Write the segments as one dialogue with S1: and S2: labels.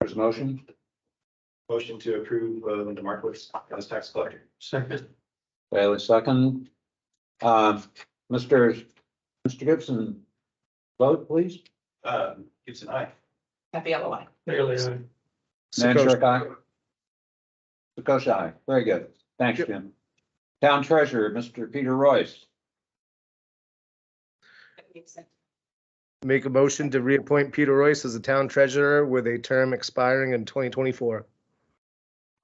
S1: There's a motion,
S2: Motion to approve uh, Linda Markowitz as tax collector.
S3: Second.
S1: Bailey second. Uh, Mr. Mr. Gibson, vote please.
S2: Uh, Gibson, aye.
S4: Happy yellow line.
S3: Clearly, I.
S1: Nanchuk, aye. Kokoschai, aye. Very good. Thanks,
S5: Yep.
S1: Jim. Town treasurer, Mr. Peter Royce.
S5: Make a motion to reappoint Peter Royce as the town treasurer with a term expiring in twenty twenty-four.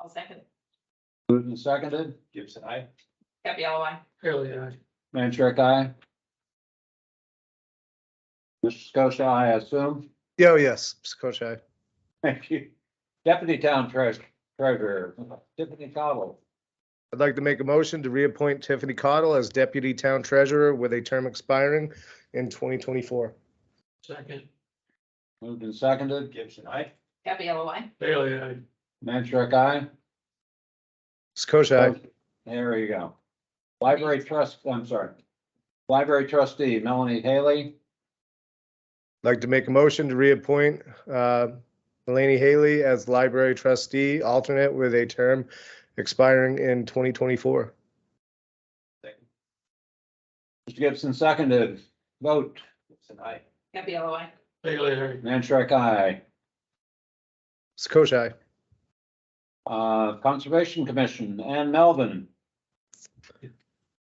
S4: I'll second.
S1: Moved and seconded.
S2: Gibson, aye.
S4: Happy yellow line.
S3: Clearly, I.
S1: Nanchuk, aye. Mr. Kokoschai, I assume.
S5: Oh, yes, Sakosha.
S1: Thank you. Deputy town treas- treasurer, Tiffany Cobble.
S5: I'd like to make a motion to reappoint Tiffany Cottle as deputy town treasurer with a term expiring in twenty twenty-four.
S3: Second.
S1: Moved and seconded.
S2: Gibson, aye.
S4: Happy yellow line.
S3: Clearly, I.
S1: Nanchuk, aye.
S5: Sakosha.
S1: There you go. Library trust, I'm sorry. Library trustee Melanie Haley,
S5: Like to make a motion to reappoint uh, Mulaney Haley as library trustee alternate with a term expiring in 2024.
S2: Second.
S1: Mr. Gibson seconded, vote,
S2: Gibson, aye.
S4: Happy yellow line.
S3: Clearly, I.
S1: Nantrick, aye.
S5: Sakosha.
S1: Uh, Conservation Commission, Ann Melvin,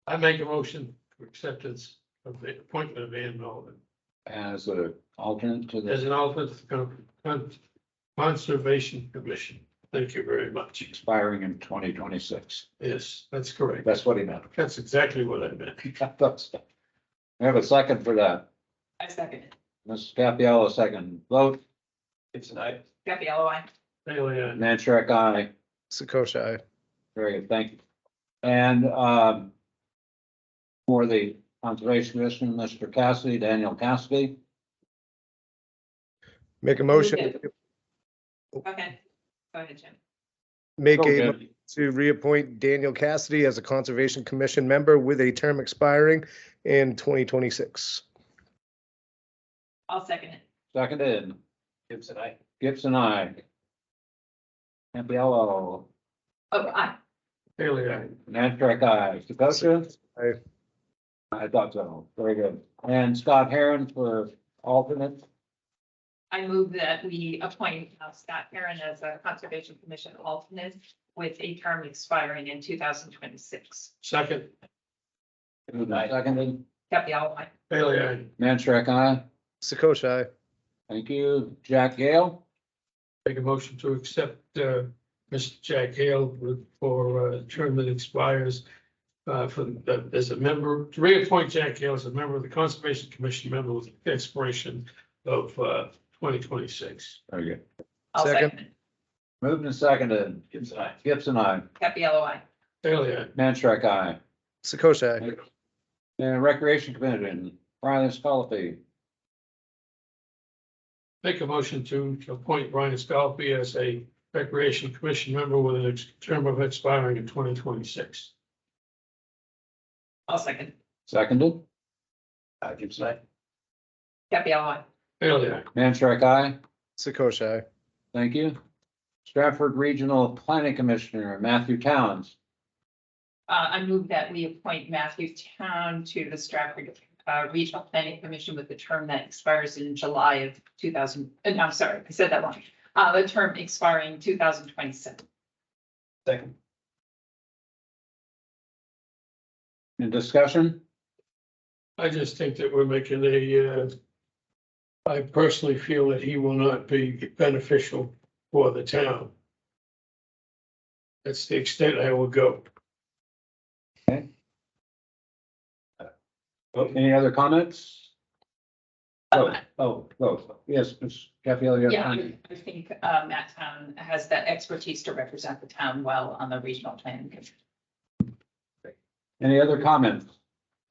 S3: I make a motion for acceptance of the appointment of Ann Melvin
S1: as a alternate to
S3: as
S1: the
S3: an alternate to the Con- Conservation Commission. Thank you very much.
S1: expiring in twenty twenty-six.
S3: Yes, that's correct.
S1: That's what he meant.
S3: That's exactly what I meant.
S1: We have a second for that.
S4: I second it.
S1: Mrs. Capella, second. Vote,
S2: Gibson, aye.
S4: Happy yellow line.
S3: Clearly, I.
S1: Nantrick, aye.
S5: Sakosha.
S1: Very good, thank you. And um. For the Conservation Commission, Mr. Cassidy, Daniel Cassidy,
S5: Make a motion,
S4: Okay. Okay. Go ahead, Jim.
S5: make
S1: Go,
S5: a
S1: Deb.
S5: motion to reappoint Daniel Cassidy as a Conservation Commission member with a term expiring in 2026.
S4: I'll second it.
S1: seconded,
S2: Gibson, aye.
S1: Gibson, I. Campbell,
S4: Oh, aye.
S3: Clearly, I.
S1: Nantrick, I, Sakosha?
S5: Aye.
S1: I thought so, very good. And Scott Heron for alternate,
S4: I move that we appoint uh, Scott Perrin as a Conservation Commission alternate with a term expiring in two thousand twenty-six.
S3: Second.
S1: moved and seconded,
S4: Happy yellow line.
S3: Clearly, I.
S1: Nantrick, I.
S5: Sakosha.
S1: Thank you, Jack Gale,
S3: Make a motion to accept uh, Mr. Jack Hale with- for uh, a term that expires uh, for, uh, as a member, to reappoint Jack Hale as a member of the Conservation Commission member with expiration of uh, twenty twenty-six.
S1: very good.
S4: I'll
S5: Second.
S4: second it.
S1: Moved and seconded,
S2: Gibson, aye.
S1: Gibson, I,
S4: Happy yellow line.
S3: Clearly, I-
S1: Nantrick, I.
S5: Sakosha.
S1: And Recreation Commission, Brian Scalfe.
S3: make a motion to appoint Brian Scalpe as a Recreation Commission member with a term of expiring in twenty twenty-six.
S4: I'll second. it.
S1: Seconded.
S2: Uh, Gibson, aye.
S4: Happy yellow line.
S3: Clearly, I-
S1: Nantrick, aye.
S5: Sakosha.
S1: Thank you. Stratford Regional Planning Commissioner, Matthew Towns.
S4: Uh, I move that we appoint Matthew Town to the Stratford uh, Regional Planning Commission with the term that expires in July of two thousand, uh, no, I'm sorry, I said that wrong. Uh, the term expiring two thousand twenty-seven.
S2: Second.
S1: In discussion?
S3: I just think that we're making a, uh, I personally feel that he will not be beneficial for the town. That's the extent I will go.
S1: Any other comments? Oh,
S4: Um,
S1: oh, oh, yes, Ms. Capella. you have
S4: Yeah,
S1: time.
S4: I I think uh, Matt Town has that expertise to represent the town well on the Regional Planning Commission.
S1: Any other comments,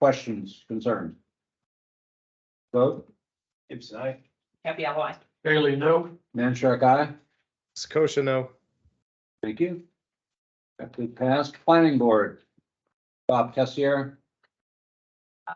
S1: questions, concerns? Vote,
S2: Gibson, aye.
S4: Happy yellow line.
S3: Bailey, no?
S1: Nantrick, aye.
S5: Sakosha, no.
S1: Thank you. That passed. Planning Board, Bob Tessier.